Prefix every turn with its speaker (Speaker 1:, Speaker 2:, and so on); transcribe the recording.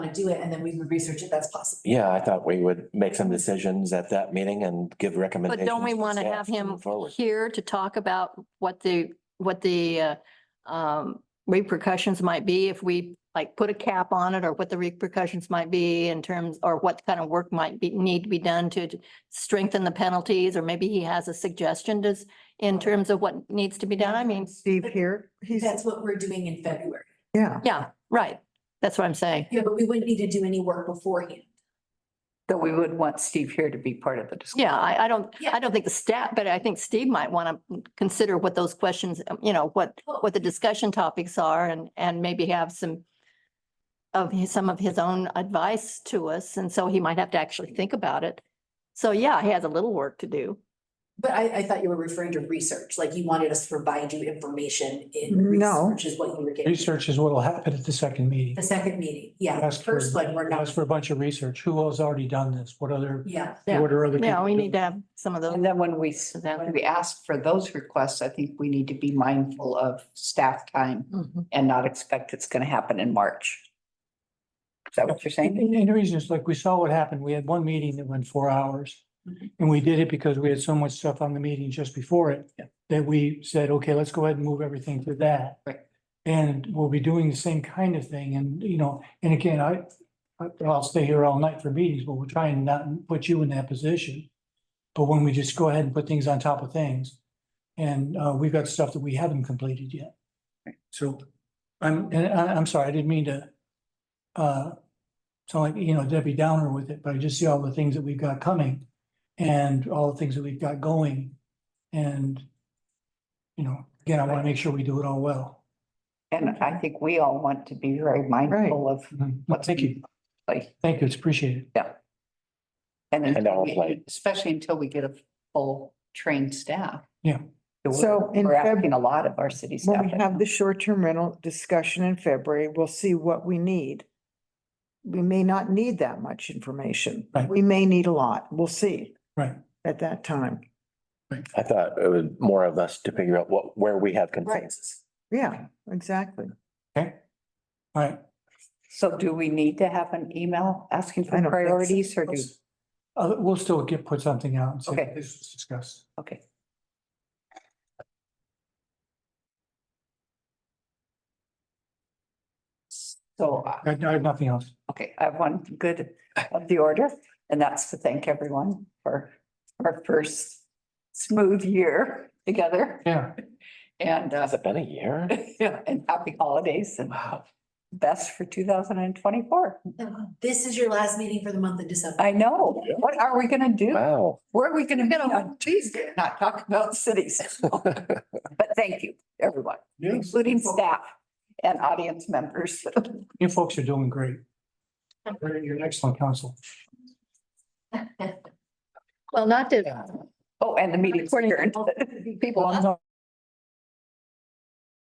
Speaker 1: wanna do it, and then we would research if that's possible.
Speaker 2: Yeah, I thought we would make some decisions at that meeting and give
Speaker 3: But
Speaker 2: recommendations.
Speaker 3: don't we want to
Speaker 2: staff
Speaker 3: have him
Speaker 2: moving Forward.
Speaker 3: here to talk about what the, what the uh, um, repercussions might be if we like put a cap on it or what the repercussions might be in terms, or what kind of work might be, need to be done to strengthen the penalties, or maybe he has a suggestion does, in terms of what needs to be done. I mean,
Speaker 4: Steve here, he's,
Speaker 1: That's what we're doing in February.
Speaker 4: yeah,
Speaker 3: yeah, right. That's what I'm saying.
Speaker 1: Yeah, but we wouldn't need to do any work beforehand.
Speaker 5: Though we would want Steve here to be part of the discussion.
Speaker 3: Yeah, I, I don't,
Speaker 1: Yeah.
Speaker 3: I don't think the staff, but I think Steve might want to consider what those questions, um, you know, what, what the discussion topics are and, and maybe have some of his, some of his own advice to us. And so he might have to actually think about it. So yeah, he has a little work to do.
Speaker 1: But I, I thought you were referring to research, like you wanted us to provide you information in
Speaker 4: No.
Speaker 1: research is what you were getting.
Speaker 6: Research is what'll happen at the second meeting.
Speaker 1: The second meeting, yeah,
Speaker 6: Ask for-
Speaker 1: first one, we're
Speaker 6: Ask
Speaker 1: not,
Speaker 6: for a bunch of research. Who has already done this? What other,
Speaker 1: yeah.
Speaker 3: Yeah.
Speaker 6: what are other?
Speaker 3: Yeah,
Speaker 6: people
Speaker 3: we
Speaker 6: doing?
Speaker 3: need to have some of
Speaker 5: And
Speaker 3: those.
Speaker 5: then when we, s- when we ask for those requests, I think we need to be mindful of staff time
Speaker 3: Mhm.
Speaker 5: and not expect it's going to happen in March. Is that what you're saying?
Speaker 6: And, and the reason is like, we saw what happened. We had one meeting that went four hours.
Speaker 5: Mm-hmm.
Speaker 6: And we did it because we had so much stuff on the meeting just before it. That we said, okay, let's go ahead and move everything to that.
Speaker 5: Right.
Speaker 6: And we'll be doing the same kind of thing and, you know, and again, I, I- I'll stay here all night for meetings, but we're trying not to put you in that position. But when we just go ahead and put things on top of things, and, uh, we've got stuff that we haven't completed yet. So, I'm, and I, I'm sorry, I didn't mean to, uh, sound like, you know, Debbie Downer with it, but I just see all the things that we've got coming and all the things that we've got going. And, you know, again, I want to make sure we do it all well.
Speaker 5: And I think we all want to be very mindful of what's.
Speaker 6: Mm-hmm. Thank you.
Speaker 5: Like,
Speaker 6: Thank you. It's appreciated.
Speaker 2: And
Speaker 5: and until
Speaker 2: our
Speaker 5: we-
Speaker 2: plate.
Speaker 5: especially until we get a full trained staff.
Speaker 6: Yeah.
Speaker 5: We're-
Speaker 4: So in
Speaker 5: We're
Speaker 4: Feb-
Speaker 5: asking a lot of our city staff.
Speaker 4: when we have the short-term rental discussion in February, we'll see what we need. We may not need that much information.
Speaker 6: Right.
Speaker 4: We may need a lot. We'll see.
Speaker 6: Right.
Speaker 4: At that time.
Speaker 2: I thought it was more of us to figure out what, where we have consensus.
Speaker 4: Yeah, exactly.
Speaker 6: Okay. All right.
Speaker 5: So do we need to have an email asking
Speaker 4: I
Speaker 5: for
Speaker 4: don't think so.
Speaker 5: priorities or do?
Speaker 6: Let's- Uh, we'll still get, put something out and say,
Speaker 5: Okay.
Speaker 6: this was discussed.
Speaker 5: Okay. So, uh,
Speaker 6: I I have nothing else.
Speaker 5: okay, I have one good of the order, and that's to thank everyone for our first smooth year together
Speaker 6: Yeah.
Speaker 5: and, uh,
Speaker 2: Has it been a year?
Speaker 5: and happy holidays and best for two thousand and twenty-four.
Speaker 1: This is your last meeting for the month of December.
Speaker 5: I know. What are we gonna do?
Speaker 2: Wow.
Speaker 5: Where are we gonna meet on Tuesday? and Not talk about cities. But thank you, everyone. including staff and audience members.
Speaker 6: You folks are doing great. You're you're an excellent council.
Speaker 3: Well, not to
Speaker 5: Oh, and the meeting's
Speaker 3: According to
Speaker 5: Oh, adjourned.
Speaker 3: all
Speaker 5: People.
Speaker 3: Well,